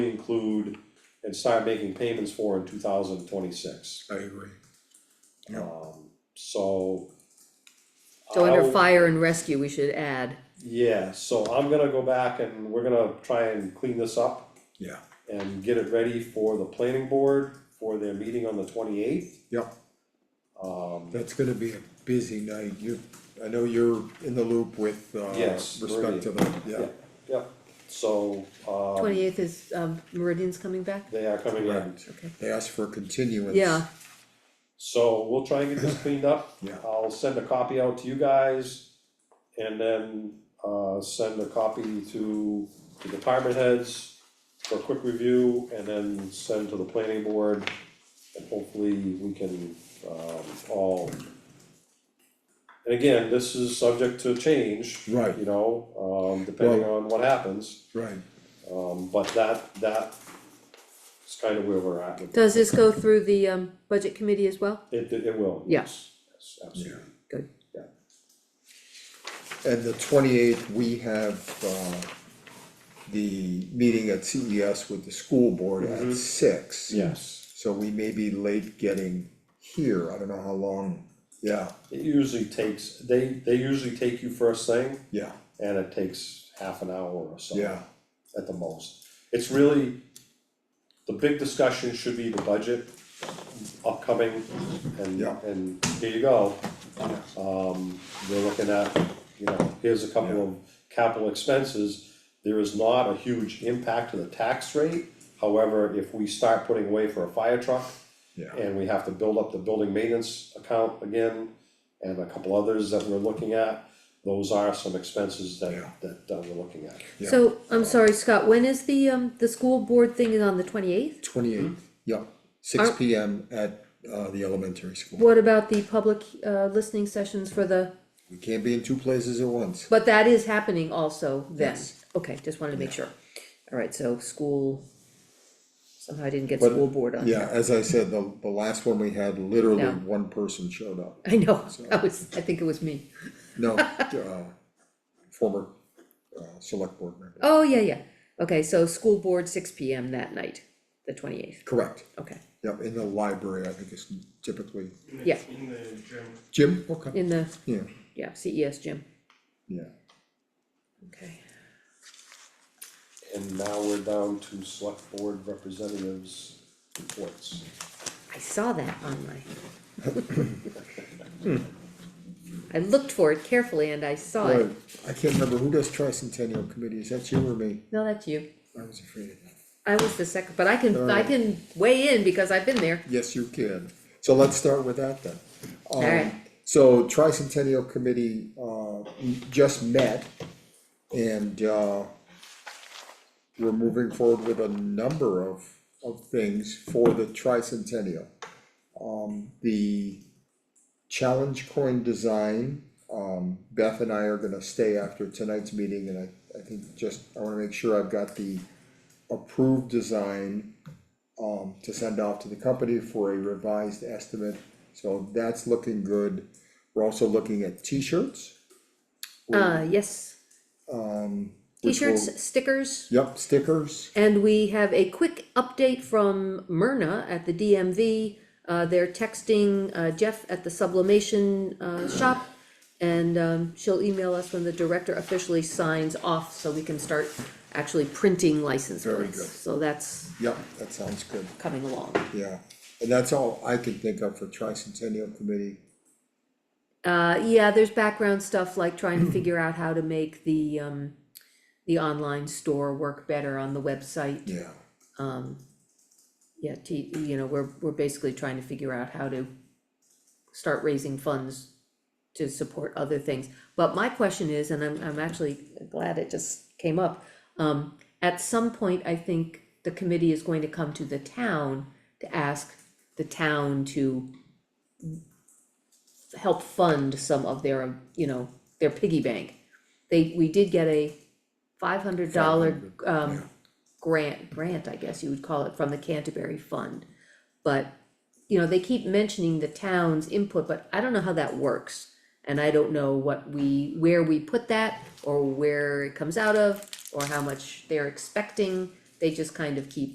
include and start making payments for in two thousand twenty-six. I agree. Yeah. Um, so. So I'll- under Oh. fire and rescue, we should add, Yeah, so I'm gonna go back and we're gonna try and clean this up Yeah, and get it ready for the planning board for their meeting on the twenty-eighth. Yep. Um, that's gonna be a busy night, you, I know you're in the loop with, uh, Yes, respect to the, yeah, yeah, yeah, so, um twenty-eighth is, um, Meridian's coming back, they are coming in. Correct. okay, they asked for a continuance. yeah, So we'll try and get this cleaned up. Yeah. I'll send a copy out to you guys and then uh send a copy to the department heads for a quick review and then send to the planning board. And hopefully we can um all. And again, this is subject to change. Right. You know, um depending on what happens, Right, um but that that is kind of where we're at. with it. does this go through the, um, budget committee as well? It it will, Yeah. yes, yes, absolutely. Good, and the twenty-eighth, we have, uh, the meeting at CES with the school board Mm-hmm. at six. Yes, So we may be late getting here, I don't know how long, yeah, it usually takes, they, they usually take you first thing, yeah, and it takes half an hour or so. yeah, At the most, it's really, the big discussion should be the budget upcoming, and, Yeah. and here you go. Um, we're looking at, you know, here's a couple of capital expenses, there is not a huge impact to the tax rate. However, if we start putting away for a fire truck, yeah, and we have to build up the building maintenance account again, and a couple others that we're looking at. Those are some expenses Yeah. that, that uh, we're looking at. Yeah. so, I'm sorry, Scott, when is the, um, the school board thing is on the twenty-eighth? twenty-eighth, Mm-hmm. yeah, six Are- P M at, uh, the elementary school. What about the public, uh, listening sessions for the, We can't be in two places at once. but that is happening also then? Yes. Okay, just wanted to make sure, alright, so school, somehow I didn't get But- school board on Yeah, there. as I said, the, the last one we had, literally Yeah. one person showed up. I know, I was, I think it was me, No, uh, former, uh, select board member. oh, yeah, yeah, okay, so school board six P M that night, the twenty-eighth, Correct, okay, yep, in the library, I think it's typically, yeah, In the gym. Jim, okay, in the, yeah, yeah, C E S gym, yeah. okay. And now we're down to select board representatives reports. I saw that on my. I looked for it carefully and I saw it. Right, I can't remember, who does tricentennial committee, is that you or me? No, that's you. I was afraid of that. I was the second, but I can, I Alright. can weigh in because I've been there. Yes, you can, so let's start with that then. Um, Alright. So tricentennial committee, uh, just met and, uh, we're moving forward with a number of, of things for the tricentennial. Um, the challenge coin design, um, Beth and I are gonna stay after tonight's meeting and I, I think just, I wanna make sure I've got the approved design um, to send off to the company for a revised estimate, so that's looking good. We're also looking at T-shirts, Uh, yes, Um, which will- t-shirts, stickers, Yep, stickers. and we have a quick update from Myrna at the DMV. Uh, they're texting uh, Jeff at the sublimation uh, shop. And um, she'll email us when the director officially signs off so we can start actually printing license Very plates. good. So that's Yep, that sounds good, coming along. yeah. And that's all I can think of for tricentennial committee. Uh, yeah, there's background stuff like trying to figure out how to make the, um, the online store work better on the website. Yeah, Yeah, to, you know, we're, we're basically trying to figure out how to start raising funds to support other things. But my question is, and I'm, I'm actually glad it just came up, um, at some point, I think the committee is going to come to the town to ask the town to help fund some of their, you know, their piggy bank. They, we did get a five hundred dollar, um, grant, grant, I guess you would call it, from the Canterbury Fund. But, you know, they keep mentioning the town's input, but I don't know how that works. And I don't know what we, where we put that, or where it comes out of, or how much they're expecting. they just kind of keep